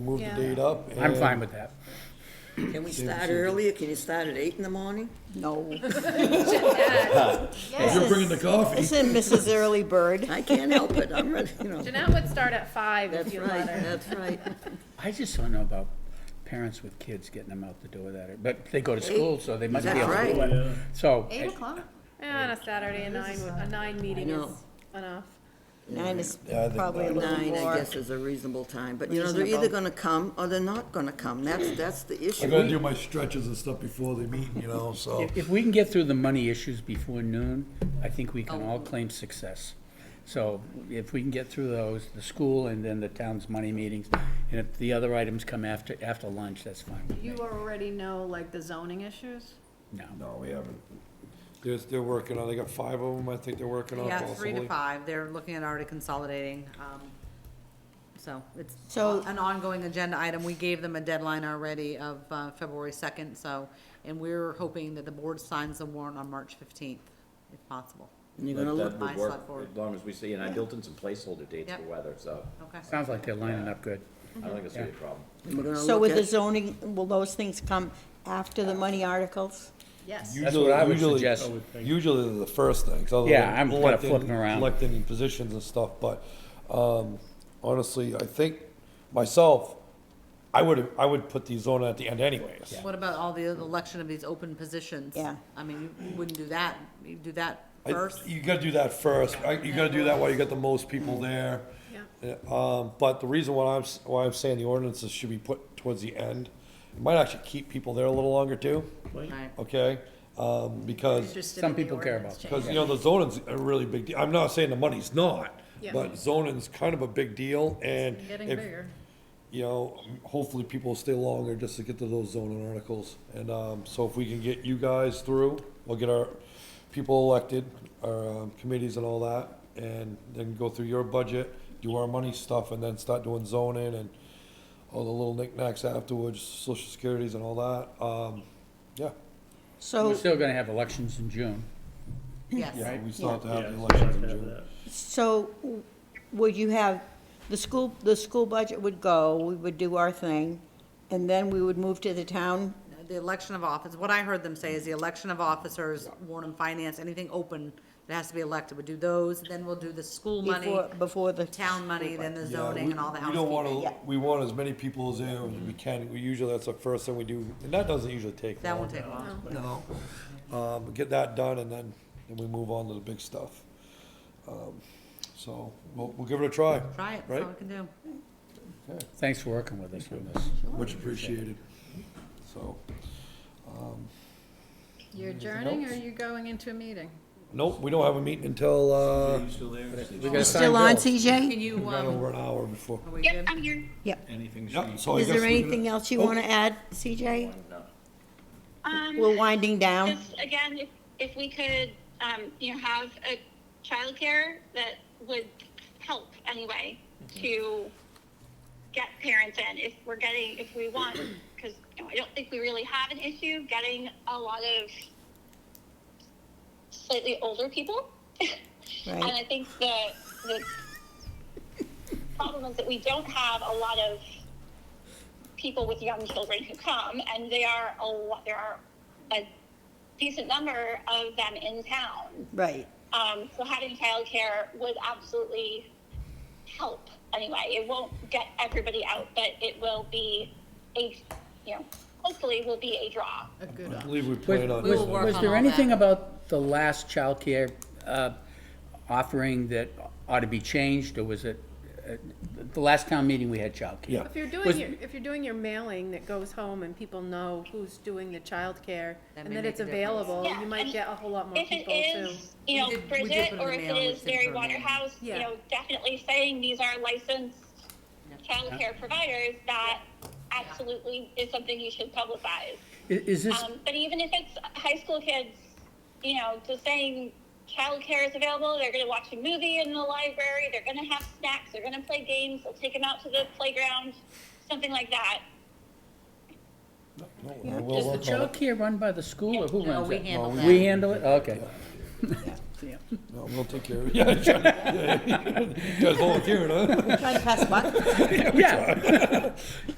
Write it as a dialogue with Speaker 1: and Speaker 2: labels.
Speaker 1: move the
Speaker 2: Yeah.
Speaker 1: date up.
Speaker 3: I'm fine
Speaker 1: and
Speaker 3: with that.
Speaker 4: Can we start earlier? Can you start at eight in the morning?
Speaker 5: No.
Speaker 1: If you're bringing the coffee,
Speaker 5: Listen, Mrs. Early Bird.
Speaker 4: I can't help it, I'm ready, you know.
Speaker 2: Jeanette would start at five if
Speaker 4: That's
Speaker 2: you
Speaker 4: right,
Speaker 2: let her.
Speaker 4: that's right.
Speaker 3: I just don't know about parents with kids getting them out the door that, ear- but they go to school, so they must be
Speaker 4: That's
Speaker 3: able to
Speaker 4: right.
Speaker 3: do it. So,
Speaker 6: Eight o'clock?
Speaker 2: Yeah, on a Saturday, a nine, would- a nine meeting
Speaker 4: know.
Speaker 2: is enough.
Speaker 5: Nine is
Speaker 1: Yeah, I think
Speaker 5: probably a little
Speaker 4: Nine, I
Speaker 5: more.
Speaker 4: guess, is a reasonable time, but
Speaker 5: Which
Speaker 4: you know, they're either
Speaker 5: reasonable.
Speaker 4: gonna come or they're not gonna come, that's, that's the
Speaker 1: I gotta do
Speaker 4: issue.
Speaker 1: my stretches and stuff before the meeting, you know, so.
Speaker 3: if, if we can get through the money issues before noon, I think we can all claim success. So if we can get through those, the school and then the town's money meetings, and if the other items come after, after lunch, that's fine with me.
Speaker 6: You already know, like, the zoning issues?
Speaker 3: No,
Speaker 1: No, we haven't. There's, they're working on, they got five of them, I think they're working on
Speaker 7: Yeah, three to
Speaker 1: possibly.
Speaker 7: five, they're looking at already consolidating, um, so it's
Speaker 5: So-
Speaker 7: an ongoing agenda item, we gave them a deadline already of, uh, February second, so, and we're hoping that the board signs the warrant on March fifteenth, if possible.
Speaker 4: And you're gonna look,
Speaker 8: That
Speaker 7: my
Speaker 8: would work,
Speaker 7: select board.
Speaker 8: as long as we see, and I built in some placeholder dates for
Speaker 7: Yep. Oh,
Speaker 8: weather, so
Speaker 7: Okay.
Speaker 3: sounds like they're lining up good.
Speaker 8: I don't think it's gonna be a problem.
Speaker 4: and we're gonna
Speaker 5: So
Speaker 4: look
Speaker 5: with the
Speaker 4: at,
Speaker 5: zoning, will those things come after the money articles?
Speaker 6: Yes.
Speaker 3: That's what I would
Speaker 1: Usually-
Speaker 3: suggest.
Speaker 1: usually- Usually they're the first thing, 'cause other
Speaker 3: Yeah,
Speaker 1: than
Speaker 3: I'm kinda
Speaker 1: electing-
Speaker 3: flipping around.
Speaker 1: Electing positions and stuff, but, um, honestly, I think myself, I would, I would put these on at the end anyways.
Speaker 7: What about all the election of these open positions?
Speaker 5: Yeah.
Speaker 7: I mean, you wouldn't do that, you do that
Speaker 1: I-
Speaker 7: first,
Speaker 1: You gotta do that first, I- you gotta do that while you got the most people there. Yeah, Um, but the reason why I'm, s- why I'm saying the ordinances should be put towards the end, it might actually keep people there a little longer too,
Speaker 7: right?
Speaker 1: okay? Um, because
Speaker 3: Some people care about that.
Speaker 1: Because, you know, the zoning's a really big deal. I'm not saying the money's not,
Speaker 2: Yeah.
Speaker 1: but zoning's kind of a big deal and
Speaker 6: Getting
Speaker 1: if-
Speaker 6: bigger.
Speaker 1: You know, hopefully people will stay longer just to get to those zoning articles. And, um, so if we can get you guys through, we'll get our people elected, our um, committees and all that. And then go through your budget, do our money stuff and then start doing zoning and all the little knickknacks afterwards, social securities and all that. Um, yeah,
Speaker 3: We're
Speaker 5: So,
Speaker 3: still gonna have elections in June.
Speaker 7: Yes,
Speaker 1: yeah, we still have to have the
Speaker 9: Yeah,
Speaker 1: elections in
Speaker 9: have
Speaker 1: June.
Speaker 9: that.
Speaker 5: so w- would you have, the school, the school budget would go, we would do our thing, and then we would move to the town?
Speaker 7: the election of office, what I heard them say is the election of officers, warrant and finance, anything open that has to be elected, we do those, then we'll do the school money,
Speaker 5: Before, before the.
Speaker 7: town money, then the
Speaker 1: Yeah,
Speaker 7: zoning
Speaker 1: we-
Speaker 7: and all the
Speaker 1: We don't
Speaker 7: housekeeping.
Speaker 1: wanna, we want as many people as there as we can, we usually, that's the first thing we do, and that doesn't usually take
Speaker 7: That
Speaker 1: long.
Speaker 7: won't take long.
Speaker 1: No. Um, get that done and then, then we move on to the big stuff. Um, So, we'll, we'll give it a try.
Speaker 7: Try it, that's all
Speaker 1: Right,
Speaker 7: we can do.
Speaker 3: Thanks for working with us on this.
Speaker 1: much appreciated, so,
Speaker 6: You're adjourning, or are you going into a meeting?
Speaker 1: nope, we don't have a meeting until, uh,
Speaker 9: You still there?
Speaker 3: We gotta sign
Speaker 5: Still on,
Speaker 3: bills.
Speaker 5: CJ?
Speaker 7: Can you, um,
Speaker 1: over an hour before.
Speaker 7: are we good?
Speaker 9: Anything's.
Speaker 1: Yep, so Oh, I
Speaker 5: Is
Speaker 1: guess.
Speaker 5: there
Speaker 1: we can-
Speaker 5: anything else you
Speaker 1: Oh.
Speaker 5: want to add, CJ?
Speaker 10: Um,
Speaker 5: We're winding down.
Speaker 10: just again, if, if we could, um, you know, have a childcare that would help anyway to get parents in if we're getting, if we want, because I don't think we really have an issue getting a lot of slightly older people. And I think the, the problem is that we don't have a lot of people with young children who come, and they are a lot, there are a decent number of them in town.
Speaker 5: Right.
Speaker 10: Um, so having childcare would absolutely help anyway. It won't get everybody out, but it will be a, you know, hopefully will be a draw.
Speaker 6: A good
Speaker 1: I
Speaker 6: option.
Speaker 1: believe we plan on.
Speaker 7: We will work
Speaker 3: Was
Speaker 7: on
Speaker 3: there
Speaker 7: all
Speaker 3: anything
Speaker 7: that.
Speaker 3: about the last childcare uh, offering that ought to be changed, or was it, uh, the last town meeting we had
Speaker 1: Yeah.
Speaker 3: childcare?
Speaker 2: If you're
Speaker 3: Was-
Speaker 2: doing your, if you're doing your mailing that goes home and people know who's doing the childcare
Speaker 7: That
Speaker 2: and
Speaker 7: may
Speaker 2: that
Speaker 7: make
Speaker 2: it's
Speaker 7: a difference.
Speaker 2: available,
Speaker 10: Yeah,
Speaker 2: you might
Speaker 10: and
Speaker 2: get a whole lot more
Speaker 10: If it
Speaker 2: people too.
Speaker 10: is, you know,
Speaker 7: We did- we did
Speaker 10: Bridget,
Speaker 7: put it
Speaker 10: or
Speaker 7: in
Speaker 10: if
Speaker 7: the
Speaker 10: it
Speaker 7: mail,
Speaker 10: is
Speaker 7: we sent
Speaker 10: Mary
Speaker 7: her a mail.
Speaker 10: Waterhouse, you
Speaker 2: Yeah.
Speaker 10: know, definitely saying these are licensed childcare providers, that absolutely is something you should publicize.
Speaker 3: I- Is this,
Speaker 10: Um, but even if it's high school kids, you know, just saying childcare is available, they're going to watch a movie in the library, they're going to have snacks, they're going to play games, they'll take them out to the playground, something like that.
Speaker 1: No, we'll
Speaker 3: is
Speaker 1: work
Speaker 3: the
Speaker 1: on it.
Speaker 3: childcare run by the school, or who
Speaker 7: No,
Speaker 3: runs
Speaker 7: we
Speaker 3: it?
Speaker 7: handle
Speaker 3: We
Speaker 7: that.
Speaker 3: handle it, okay. Yeah.
Speaker 1: No, we'll take care of it. Yeah, sure. Yeah, You guys volunteering, huh?
Speaker 5: Trying to pass the buck?
Speaker 3: Yeah.